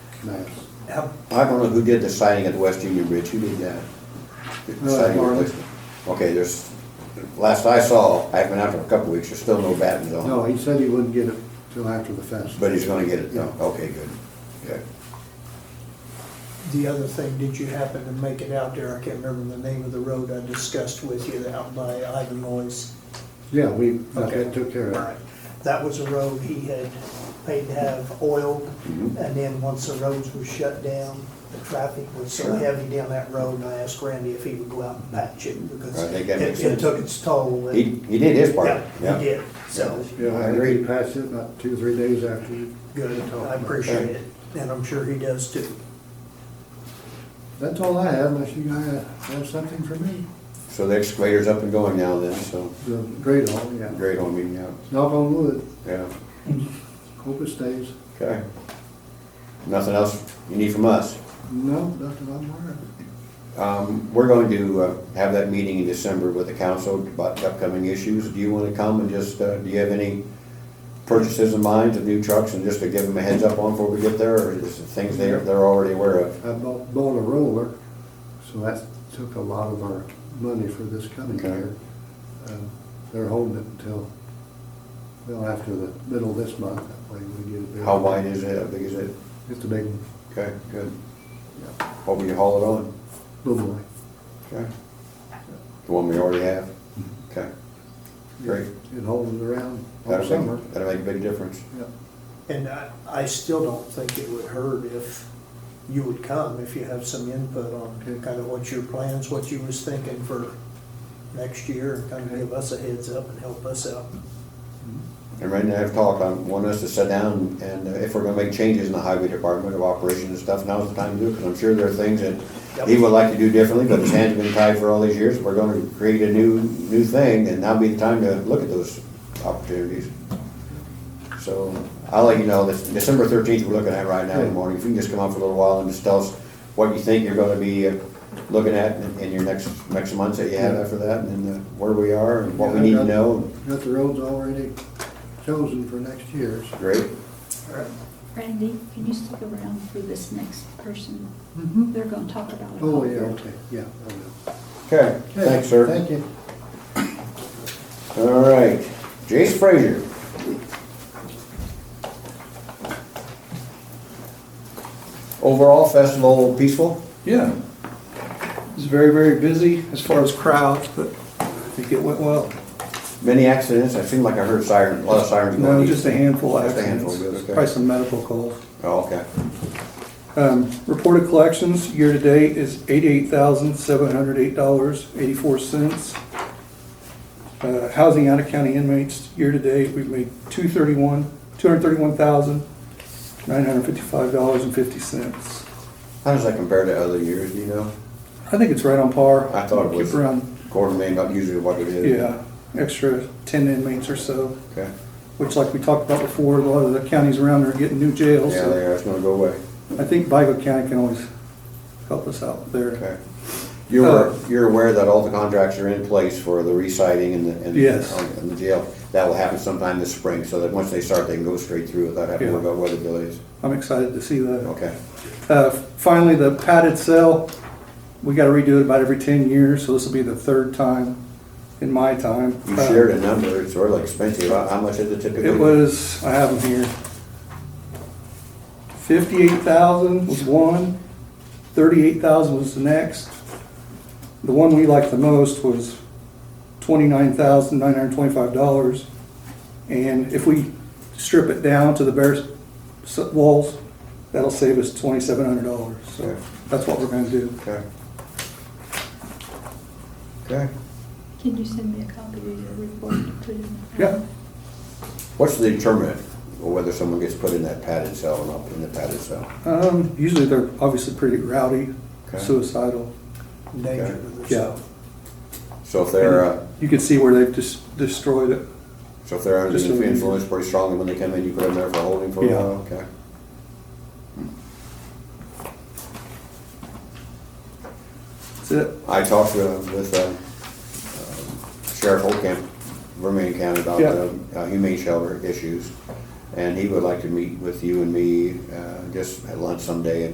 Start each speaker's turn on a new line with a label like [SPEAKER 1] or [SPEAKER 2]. [SPEAKER 1] maps.
[SPEAKER 2] How-
[SPEAKER 3] I don't know who did the siding at the West Union Bridge, who did that? The
[SPEAKER 1] Uh,
[SPEAKER 3] siding
[SPEAKER 1] Marley.
[SPEAKER 3] replacement. Okay, there's, last I saw, I haven't been out for a couple weeks, there's still no battens on.
[SPEAKER 1] No, he said he wouldn't get it till after the fest.
[SPEAKER 3] But he's gonna get it, no, okay, good, good.
[SPEAKER 2] The other thing, did you happen to make it out there? I can't remember the name of the road I discussed with you out by Ivan Loy's.
[SPEAKER 1] Yeah, we, that took care
[SPEAKER 2] All
[SPEAKER 1] of
[SPEAKER 2] right.
[SPEAKER 1] it.
[SPEAKER 2] That was a road he had paid to have oiled, and
[SPEAKER 3] Mhm.
[SPEAKER 2] then once the roads were shut down, the traffic was so
[SPEAKER 3] Sure.
[SPEAKER 2] heavy down that road, and I asked Randy if he would go out and patch it, because
[SPEAKER 3] I
[SPEAKER 2] it
[SPEAKER 3] think that makes
[SPEAKER 2] it
[SPEAKER 3] sense.
[SPEAKER 2] took its toll. and-
[SPEAKER 3] He, he did his part,
[SPEAKER 2] Yeah, he
[SPEAKER 3] yeah.
[SPEAKER 2] did, so,
[SPEAKER 1] Yeah, I agree, he passed it about two, three days after. you-
[SPEAKER 2] good,
[SPEAKER 1] you talked
[SPEAKER 2] I
[SPEAKER 1] about it.
[SPEAKER 2] appreciate it, and I'm sure he does too.
[SPEAKER 1] That's all I have, unless you guys have something for me.
[SPEAKER 3] So the excavator's up and going now then, so,
[SPEAKER 1] The great hall, yeah.
[SPEAKER 3] great on me, yeah,
[SPEAKER 1] Knock on wood,
[SPEAKER 3] yeah,
[SPEAKER 1] hope it stays.
[SPEAKER 3] okay. Nothing else you need from us?
[SPEAKER 1] No, nothing I'm aware of.
[SPEAKER 3] Um, we're going to uh, have that meeting in December with the council about the upcoming issues. Do you wanna come and just, uh, do you have any purchases in mind of new trucks and just to give them a heads up on before we get there, or is it things they're, they're already aware of?
[SPEAKER 1] I bought, bought a roller, so that took a lot of our money for this coming
[SPEAKER 3] Okay.
[SPEAKER 1] year. Um, They're holding it until, well, after the middle of this month, that way we get a bid.
[SPEAKER 3] How wide is it, how big is it?
[SPEAKER 1] It's a big one,
[SPEAKER 3] Okay, good.
[SPEAKER 1] yeah,
[SPEAKER 3] What will you haul it on?
[SPEAKER 1] little boy.
[SPEAKER 3] Okay. Mm-hmm. The one we already have? Okay, great.
[SPEAKER 1] It holds it around all
[SPEAKER 3] That'll
[SPEAKER 1] summer,
[SPEAKER 3] make, that'll make a big difference.
[SPEAKER 1] yeah.
[SPEAKER 2] And I, I still don't think it would hurt if you would come, if you have some input on
[SPEAKER 1] Okay.
[SPEAKER 2] kind of what your plans, what you was thinking for next year, and kind of
[SPEAKER 1] Okay.
[SPEAKER 2] give us a heads up and help us out.
[SPEAKER 3] And right now, I've talked, I want us to sit down and uh, if we're gonna make changes in the highway department of operations and stuff, now's the time to do it, because I'm sure there are things that he would like to do differently, but his hands have been tied for all these years. We're gonna create a new, new thing, and now'd be the time to look at those opportunities. So I'll let you know, this December thirteenth, we're looking at right now in the morning. If you can just come out for a little while and just tell us what you think you're gonna be uh, looking at in- in your next, next months that you have after that, and then uh, where we are and what we need to know.
[SPEAKER 1] Got the roads already chosen for next year, so.
[SPEAKER 3] Great.
[SPEAKER 4] Randy, can you stick around for this next person?
[SPEAKER 1] Mhm.
[SPEAKER 4] They're gonna talk about it.
[SPEAKER 1] Oh, yeah, okay, yeah, I will.
[SPEAKER 3] Okay,
[SPEAKER 1] Okay,
[SPEAKER 3] thanks, sir.
[SPEAKER 1] Thank you.
[SPEAKER 3] All right, Jace Frazier. Overall festival peaceful?
[SPEAKER 5] Yeah. It was very, very busy as far as crowds, but I think it went well.
[SPEAKER 3] Many accidents? I seem like I heard sirens, a lot of sirens going.
[SPEAKER 5] No, just a handful of
[SPEAKER 3] Just a handful,
[SPEAKER 5] accidents.
[SPEAKER 3] good, okay.
[SPEAKER 5] Probably some medical calls.
[SPEAKER 3] Oh, okay.
[SPEAKER 5] Um, Reported collections year-to-date is eighty-eight thousand, seven hundred eight dollars, eighty-four cents. Uh, Housing out-of-county inmates, year-to-date, we've made two thirty-one, two hundred thirty-one thousand, nine hundred fifty-five dollars and fifty cents.
[SPEAKER 3] How does that compare to other years, do you know?
[SPEAKER 5] I think it's right on par.
[SPEAKER 3] I thought it was.
[SPEAKER 5] Keep around,
[SPEAKER 3] Quarter million, not usually what it is.
[SPEAKER 5] yeah, extra ten inmates or so.
[SPEAKER 3] Okay.
[SPEAKER 5] which like we talked about before, a lot of the counties around there are getting new jails.
[SPEAKER 3] Yeah, they
[SPEAKER 5] so
[SPEAKER 3] are, it's gonna go away.
[SPEAKER 5] I think Vigo County can always help us out there.
[SPEAKER 3] Okay. You're,
[SPEAKER 5] Uh,
[SPEAKER 3] you're aware that all the contracts are in place for the reciting and the, and
[SPEAKER 5] Yes.
[SPEAKER 3] and the jail? That will happen sometime this spring, so that once they start, they can go straight through without having to worry
[SPEAKER 5] Yeah.
[SPEAKER 3] about weather delays.
[SPEAKER 5] I'm excited to see that.
[SPEAKER 3] Okay,
[SPEAKER 5] Uh, Finally, the padded cell, we gotta redo it about every ten years, so this will be the third time in my time.
[SPEAKER 3] you
[SPEAKER 5] Uh,
[SPEAKER 3] shared a number, it's really expensive, how how much is it typically?
[SPEAKER 5] It was, I have them here. Fifty-eight thousand was one. Thirty-eight thousand was the next. The one we liked the most was twenty-nine thousand, nine hundred and twenty-five dollars. And if we strip it down to the bare s- walls, that'll save us twenty-seven hundred dollars. So
[SPEAKER 3] Okay.
[SPEAKER 5] that's what we're gonna do.
[SPEAKER 3] Okay. Okay,
[SPEAKER 4] Can you send me a copy of your report to put in? the
[SPEAKER 5] Yeah.
[SPEAKER 4] file?
[SPEAKER 3] what's the determinant of whether someone gets put in that padded cell or not, in the padded cell?
[SPEAKER 5] Um, usually they're obviously pretty rowdy,
[SPEAKER 3] Okay.
[SPEAKER 5] suicidal.
[SPEAKER 2] Danger
[SPEAKER 3] Okay.
[SPEAKER 2] to the
[SPEAKER 5] Yeah.
[SPEAKER 3] So if they're, uh,
[SPEAKER 5] You can see where they've just destroyed it.
[SPEAKER 3] so if they're under
[SPEAKER 5] Just
[SPEAKER 3] the
[SPEAKER 5] a-
[SPEAKER 3] influence pretty strongly when they come in, you put them there for holding for a
[SPEAKER 5] Yeah.
[SPEAKER 3] while, okay?
[SPEAKER 5] That's it.
[SPEAKER 3] I talked uh, with uh, um, Sheriff Holcamp, Vermillion County, about
[SPEAKER 5] Yeah.
[SPEAKER 3] the uh, humane shelter issues. And he would like to meet with you and me, uh, just at lunch someday and